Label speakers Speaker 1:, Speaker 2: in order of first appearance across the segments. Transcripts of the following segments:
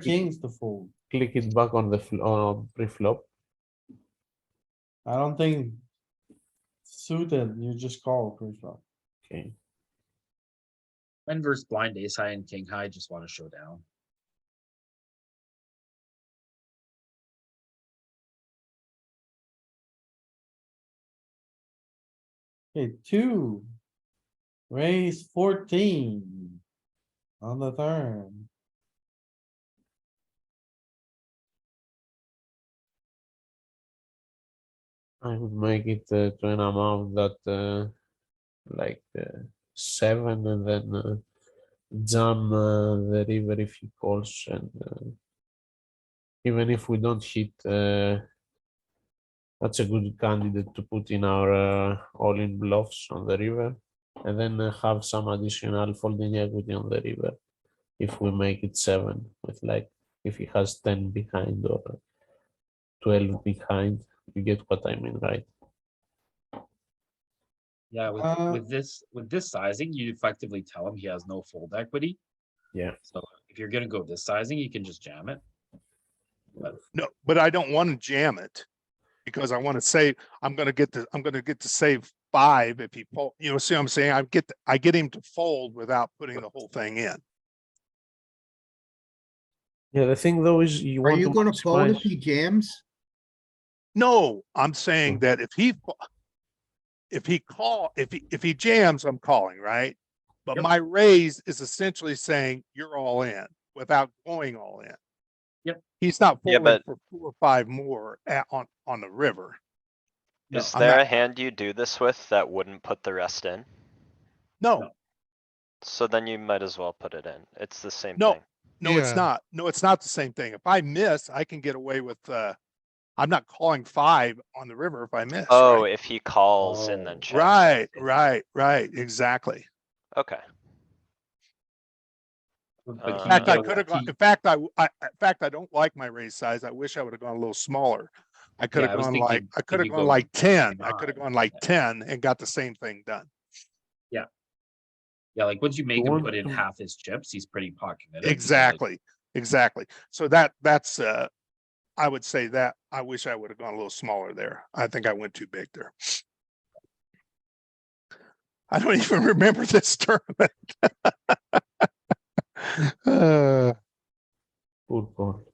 Speaker 1: kings to fold.
Speaker 2: click it back on the fl- on pre-flop.
Speaker 1: I don't think suited, you just call pre-flop.
Speaker 2: Okay.
Speaker 3: When versus blind ace high and king high, just wanna show down.
Speaker 1: Okay, two. Raise fourteen. On the turn.
Speaker 2: I would make it uh, to an amount that uh, like uh, seven and then uh, jam uh, the river if he calls and uh, even if we don't hit uh, that's a good candidate to put in our uh, all-in bluffs on the river and then uh, have some additional folding equity on the river if we make it seven with like if he has 10 behind or 12 behind you get what I mean, right?
Speaker 3: Yeah, with,
Speaker 1: Uh,
Speaker 3: with this, with this sizing, you effectively tell him he has no fold equity.
Speaker 2: Yeah.
Speaker 3: So if you're gonna go this sizing, you can just jam it.
Speaker 4: No, but I don't want to jam it. Because I want to save, I'm gonna get the, I'm gonna get to save five if he fold, you know, see what I'm saying? I get, the- I get him to fold without putting the whole thing in.
Speaker 2: Yeah, the thing though is you
Speaker 5: Are
Speaker 2: want
Speaker 5: you
Speaker 2: to
Speaker 5: gonna fold if
Speaker 2: maximize-
Speaker 5: he jams?
Speaker 4: No, I'm
Speaker 3: Hmm.
Speaker 4: saying that if he fo- if he call, if he, if he jams, I'm calling, right? But
Speaker 3: Yep.
Speaker 4: my raise is essentially saying you're all in without going all in.
Speaker 3: Yep.
Speaker 4: He's not
Speaker 6: Yeah,
Speaker 4: folding
Speaker 6: but-
Speaker 4: for four or five more at, on, on the river.
Speaker 3: No,
Speaker 6: Is
Speaker 4: I'm
Speaker 6: there
Speaker 4: not-
Speaker 6: a hand you do this with that wouldn't put the rest in?
Speaker 4: No,
Speaker 6: So then you might as well put it in. It's the same
Speaker 4: No.
Speaker 6: thing.
Speaker 4: no, it's
Speaker 5: Yeah.
Speaker 4: not. No, it's not the same thing. If I miss, I can get away with, uh, I'm not calling five on the river if I miss.
Speaker 6: Oh,
Speaker 4: right?
Speaker 6: if he calls and
Speaker 3: Oh.
Speaker 6: then checks.
Speaker 4: Right, right, right, exactly.
Speaker 6: Okay,
Speaker 3: but
Speaker 6: Uh,
Speaker 4: In
Speaker 3: he
Speaker 6: Yeah,
Speaker 4: fact, I
Speaker 3: got
Speaker 4: could have gone,
Speaker 3: lucky.
Speaker 4: in fact, I, w- I- in fact, I don't like my raise size. I wish I would have gone a little smaller. I could
Speaker 3: Yeah, I
Speaker 4: have
Speaker 3: was
Speaker 4: gone
Speaker 3: thinking
Speaker 4: like, I
Speaker 3: if
Speaker 4: could have
Speaker 3: you
Speaker 4: gone
Speaker 3: go
Speaker 4: like ten, I could have
Speaker 3: nine,
Speaker 4: gone like
Speaker 3: yeah.
Speaker 4: ten and got the same thing done.
Speaker 3: Yeah, like once you make him
Speaker 2: want
Speaker 3: put in
Speaker 2: to-
Speaker 3: half his chips, he's pretty pocketed. it, because, like,
Speaker 4: Exactly, exactly. So that, that's, uh, I would say that, I wish I would have gone a little smaller there. I think I went too big there. I don't even remember this tournament. Uh,
Speaker 2: Good call.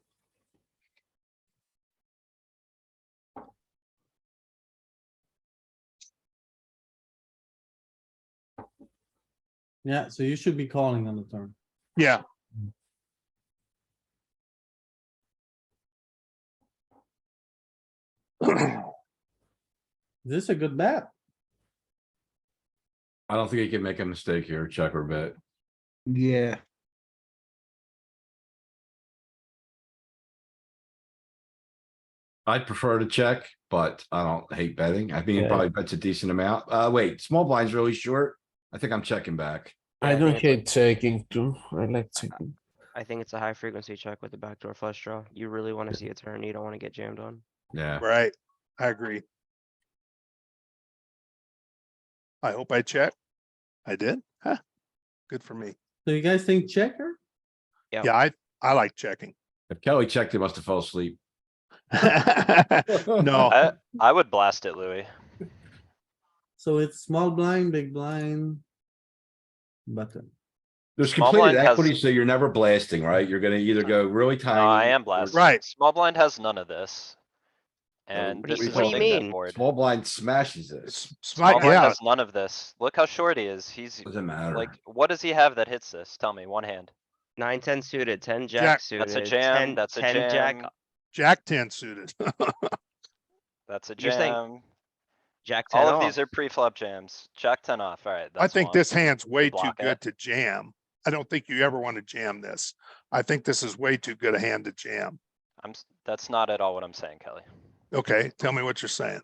Speaker 1: Yeah, so you should be calling on the turn.
Speaker 4: Yeah,
Speaker 1: Is this a good bet?
Speaker 7: I don't think he can make a mistake here, check or bet.
Speaker 5: Yeah.
Speaker 7: I'd prefer to check, but I don't hate betting. I think
Speaker 2: Yeah.
Speaker 7: he probably bets a decent amount. Uh, wait, small blind's really short. I think I'm checking back.
Speaker 2: I don't hate checking too. I like checking.
Speaker 8: I think it's a high frequency check with the backdoor flush draw. You really want to see a turn. You don't want to get jammed on.
Speaker 7: Yeah,
Speaker 4: Right, I agree. I hope I checked. I did, huh? Good for me.
Speaker 1: So you guys think checker?
Speaker 8: Yeah.
Speaker 4: Yeah, I, I like checking.
Speaker 7: if Kelly checked, he must have fell asleep.
Speaker 4: No,
Speaker 6: I, I would blast it, Louis.
Speaker 1: So it's small blind, big blind. Button.
Speaker 7: There's
Speaker 6: Small
Speaker 7: completed
Speaker 6: blind has-
Speaker 7: equity, so you're never blasting, right? You're gonna either go really
Speaker 6: No,
Speaker 7: tiny.
Speaker 6: I
Speaker 7: or-
Speaker 6: am blasting.
Speaker 4: Right.
Speaker 6: Small blind has none of this. And
Speaker 7: what
Speaker 6: this
Speaker 7: do you-
Speaker 6: is
Speaker 7: what
Speaker 6: a
Speaker 7: do you
Speaker 6: big bet
Speaker 8: mean?
Speaker 6: board.
Speaker 7: Small blind smashes this.
Speaker 4: s-
Speaker 6: Small
Speaker 4: smite,
Speaker 6: blind
Speaker 4: yeah,
Speaker 6: has none of this. Look how short he is. He's
Speaker 7: Doesn't matter.
Speaker 6: like, what does he have that hits this? Tell me, one hand.
Speaker 8: Nine, ten suited, ten
Speaker 4: Jack.
Speaker 8: jack suited.
Speaker 6: That's a jam,
Speaker 8: 10
Speaker 6: that's a
Speaker 8: 10 jack,
Speaker 6: jam,
Speaker 4: jack ten suited.
Speaker 6: that's a
Speaker 8: You're saying
Speaker 6: jam.
Speaker 8: jack ten
Speaker 6: All of these
Speaker 8: off.
Speaker 6: are pre-flop jams. Jack ten off, alright.
Speaker 4: I think this hand's way too
Speaker 6: block it.
Speaker 4: good to jam. I don't think you ever want to jam this. I think this is way too good a hand to jam.
Speaker 6: I'm, s- that's not at all what I'm saying, Kelly.
Speaker 4: Okay, tell me what you're saying.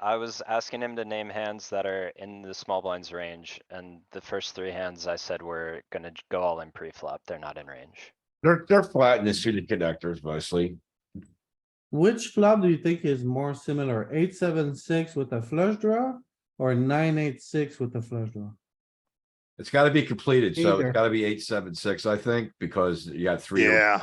Speaker 6: I was asking him to name hands that are in the small blinds range, and the first three hands I said were gonna j- go all in pre-flop, they're not in range.
Speaker 7: They're, they're flat in the suited connectors mostly.
Speaker 1: Which flop do you think is more similar? Eight, seven, six with a flush draw? Or nine, eight, six with a flush draw?
Speaker 7: It's gotta be completed, so
Speaker 5: Either.
Speaker 7: it's gotta be eight, seven, six, I think, because you got three.
Speaker 4: Yeah.